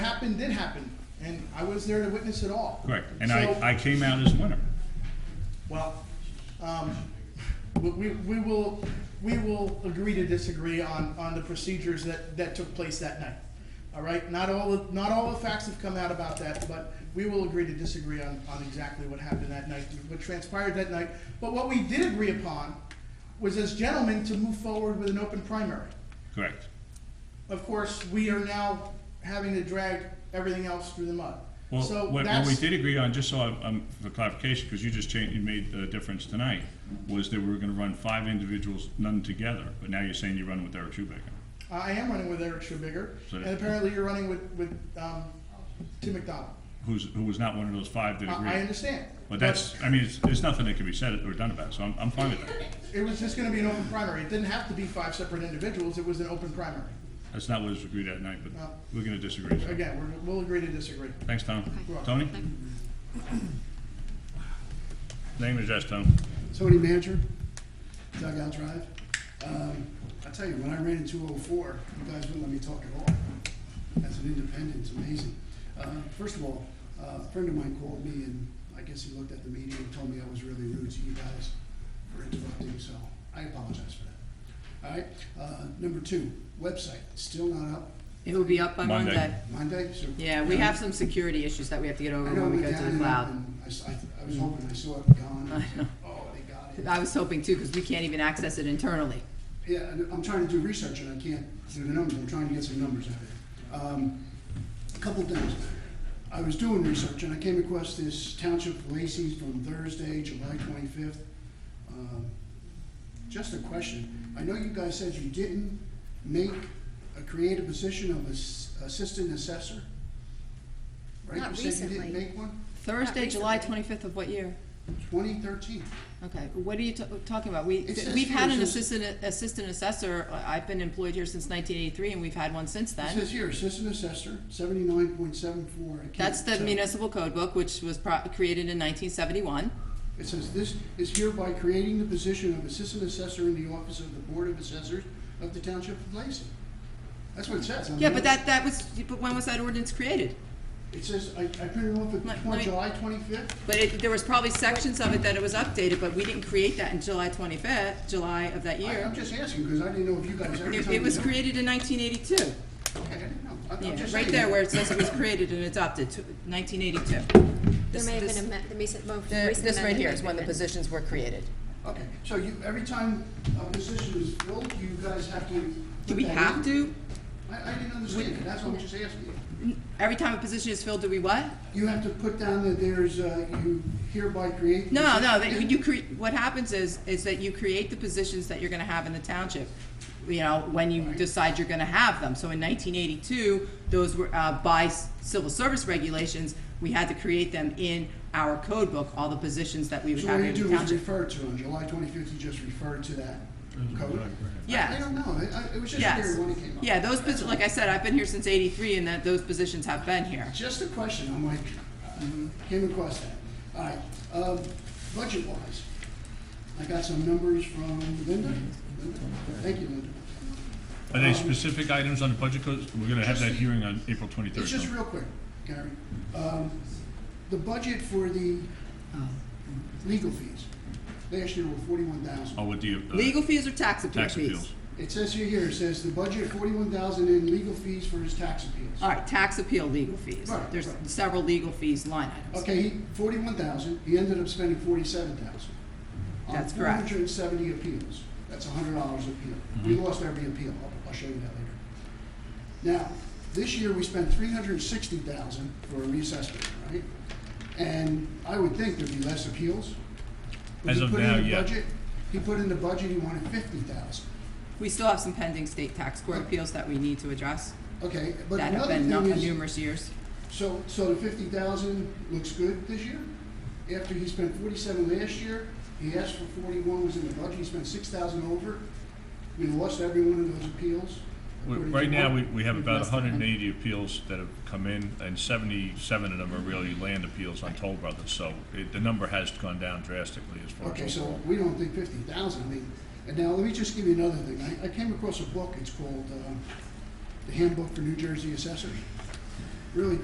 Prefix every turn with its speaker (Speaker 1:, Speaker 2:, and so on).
Speaker 1: happened did happen, and I was there to witness it all.
Speaker 2: Correct, and
Speaker 1: So-
Speaker 2: I, I came out as winner.
Speaker 1: Well, um, we, we we will, we will agree to disagree on, on the procedures that, that took place that night. All right, not all, of- not all the facts have come out about that, but we will agree to disagree on, on exactly what happened that night, what transpired that night. But what we did agree upon was as gentlemen to move forward with an open primary.
Speaker 2: Correct.
Speaker 1: Of course, we are now having to drag everything else through the mud.
Speaker 2: Well,
Speaker 1: So
Speaker 2: what, what
Speaker 1: that's-
Speaker 2: we did agree on, just so I'm, I'm- for clarification, because you just changed, you made the difference tonight, was that we were gonna run five individuals, none together, but now you're saying you're running with Eric Schubaker.
Speaker 1: I am running with Eric Schubiger,
Speaker 2: So-
Speaker 1: and apparently you're running with, with, um, Tim McDonald.
Speaker 2: Who's, who was not one of those five that
Speaker 1: I, I
Speaker 2: agreed.
Speaker 1: understand.
Speaker 2: But that's, I mean, it's, there's nothing that can be said or done about it, so I'm, I'm fine with that.
Speaker 1: But It was just gonna be an open primary. It didn't have to be five separate individuals, it was an open primary.
Speaker 2: That's not what was agreed at night, but
Speaker 1: No.
Speaker 2: we're gonna disagree. so.
Speaker 1: Again, we're, we'll agree to disagree.
Speaker 2: Thanks, Tom.
Speaker 1: Okay.
Speaker 2: Tony? Name and address, Tom.
Speaker 3: Tony Manager, Dugout Drive. Um, I tell you, when I ran in two oh four, you guys wouldn't let me talk at all. As an independent, it's amazing. Uh, first of all, uh, a friend of mine called me and I guess he looked at the meeting and told me I was really rude to you guys for interrupting, so I apologize for that. All right, uh, number two, website, still not up.
Speaker 4: It will be up by
Speaker 2: Monday.
Speaker 4: Monday.
Speaker 3: Monday, so.
Speaker 4: Yeah, we have some security issues that we have to get over
Speaker 3: I know
Speaker 4: when we
Speaker 3: we
Speaker 4: go
Speaker 3: down
Speaker 4: to the
Speaker 3: and up
Speaker 4: cloud. Mm-hmm.
Speaker 3: and I s- I, I was hoping I saw it gone. and I was like, Oh, they got it.
Speaker 4: I was hoping too, because we can't even access it internally.
Speaker 3: Yeah, and I'm trying to do research and I can't do the numbers, I'm trying to get some numbers out of it. Um, a Couple things. I was doing research and I came across this Township of Lacey from Thursday, July twenty-fifth. Um, Just a question, I know you guys said you didn't make a creative position of ass- assistant assessor? Right?
Speaker 5: Not
Speaker 3: You said you didn't
Speaker 5: recently.
Speaker 3: make one?
Speaker 4: Thursday, July twenty-fifth of what year?
Speaker 3: Twenty thirteen.
Speaker 4: Okay, what are you ta- talking about? We,
Speaker 3: It says
Speaker 4: we've had
Speaker 3: here,
Speaker 4: an
Speaker 3: it says-
Speaker 4: assistant, assistant assessor, I- I've been employed here since nineteen eighty-three, and we've had one since
Speaker 3: It
Speaker 4: then.
Speaker 3: says here, assistant assessor, seventy-nine point seven four.
Speaker 4: That's the municipal code book, which was pro- created in nineteen seventy-one.
Speaker 3: It says, "This is hereby creating the position of Assistant Assessor in the Office of the Board of Assessors of the Township of Lacey." That's what it says. I
Speaker 4: Yeah,
Speaker 3: mean,
Speaker 4: but that, that was, but when was that ordinance created?
Speaker 3: It says, I, I printed it off
Speaker 4: Let-
Speaker 3: at
Speaker 4: let
Speaker 3: twen-
Speaker 4: me-
Speaker 3: July twenty-fifth.
Speaker 4: But it, there was probably sections of it that it was updated, but we didn't create that in July twenty-fifth, July of that year.
Speaker 3: I'm just asking, because I didn't know if you guys every
Speaker 4: It,
Speaker 3: time.
Speaker 4: it
Speaker 3: you
Speaker 4: was
Speaker 3: know-
Speaker 4: created in 1982.
Speaker 3: Okay, I didn't know. I- I'm
Speaker 4: Yeah,
Speaker 3: just
Speaker 4: right
Speaker 3: saying.
Speaker 4: there where it says it was created and adopted, to- 1982.
Speaker 5: There
Speaker 4: This-
Speaker 5: may have
Speaker 4: this-
Speaker 5: been a, me- the recent, most
Speaker 4: the-
Speaker 5: recent
Speaker 4: This right
Speaker 5: amendment
Speaker 4: here
Speaker 5: may
Speaker 4: is
Speaker 5: have
Speaker 4: when the
Speaker 5: been.
Speaker 4: positions were created.
Speaker 3: Okay, so you, every time a position is filled, you guys have to.
Speaker 4: Do we
Speaker 3: put that
Speaker 4: have
Speaker 3: in?
Speaker 4: to?
Speaker 3: I, I didn't understand it. That's what I'm just asking. you.
Speaker 4: Every time a position is filled, do we what?
Speaker 3: You have to put down that there's, uh, you hereby create. the
Speaker 4: No, no,
Speaker 3: position.
Speaker 4: that you cre, what happens is, is that you create the positions that you're gonna have in the township, you know, when you decide you're gonna have them. So in nineteen eighty-two, those were, uh, by s- civil service regulations, we had to create them in our code book, all the positions that we would
Speaker 3: So
Speaker 4: have
Speaker 3: what
Speaker 4: in
Speaker 3: you
Speaker 4: the
Speaker 3: do is
Speaker 4: township.
Speaker 3: refer to, on July twenty-fifth, you just refer to that code?
Speaker 4: Yeah.
Speaker 3: I don't know, I- I- it was just
Speaker 4: Yes.
Speaker 3: scary when it came up.
Speaker 4: Yeah, those, posi- like I said, I've been here since eighty-three and that, those positions have been here.
Speaker 3: Just a question, I'm like, uh, came across that. All right, um, budget-wise, I got some numbers from Linda. Linda? Thank you, Linda.
Speaker 2: Are there specific items on the budget codes? We're gonna have that hearing on April twenty-third.
Speaker 3: It's just real quick, Gary. Um, The budget for the legal fees, last year were forty-one thousand.
Speaker 2: Oh, with the, uh,
Speaker 4: Legal fees or tax appeal
Speaker 2: tax
Speaker 4: fees?
Speaker 2: appeals.
Speaker 3: It says here, here, it says the budget forty-one thousand in legal fees for his tax appeals.
Speaker 4: All right, tax appeal legal fees.
Speaker 3: Right,
Speaker 4: There's
Speaker 3: right.
Speaker 4: several legal fees line items.
Speaker 3: Okay, he, forty-one thousand, he ended up spending forty-seven thousand.
Speaker 4: That's
Speaker 3: On four
Speaker 4: correct.
Speaker 3: hundred and seventy appeals, that's hundred dollars appeal.
Speaker 2: Mm-hmm.
Speaker 3: We lost every appeal, I'll, I'll show you that later. Now, this year, we spent three hundred and sixty thousand for a reassessment, right? And I would think there'd be less appeals. But
Speaker 2: As
Speaker 3: he
Speaker 2: of
Speaker 3: put in
Speaker 2: now,
Speaker 3: the
Speaker 2: yeah.
Speaker 3: budget- He put in the budget, he wanted fifty thousand.
Speaker 4: We still have some pending state tax court appeals that we need to address
Speaker 3: Okay, but
Speaker 4: that have
Speaker 3: another
Speaker 4: been not-
Speaker 3: thing is,
Speaker 4: numerous years.
Speaker 3: so, so the fifty thousand looks good this year? After he spent forty-seven last year, he asked for forty-one, was in the budget, he spent six thousand over. We lost every one of those appeals.
Speaker 2: We-
Speaker 3: according to
Speaker 2: Right now,
Speaker 3: Mark.
Speaker 2: we, we have
Speaker 4: We've
Speaker 2: about
Speaker 4: lost them.
Speaker 2: hundred and eighty appeals that have come in, and seventy-seven of them are really land appeals on Toll Brothers, so it, the number has gone down drastically as far
Speaker 3: Okay,
Speaker 2: as
Speaker 3: so
Speaker 2: overall.
Speaker 3: we don't think fifty thousand, I mean, and now let me just give you another thing. I, I came across a book, it's called, uh, The Handbook for New Jersey Assessors. really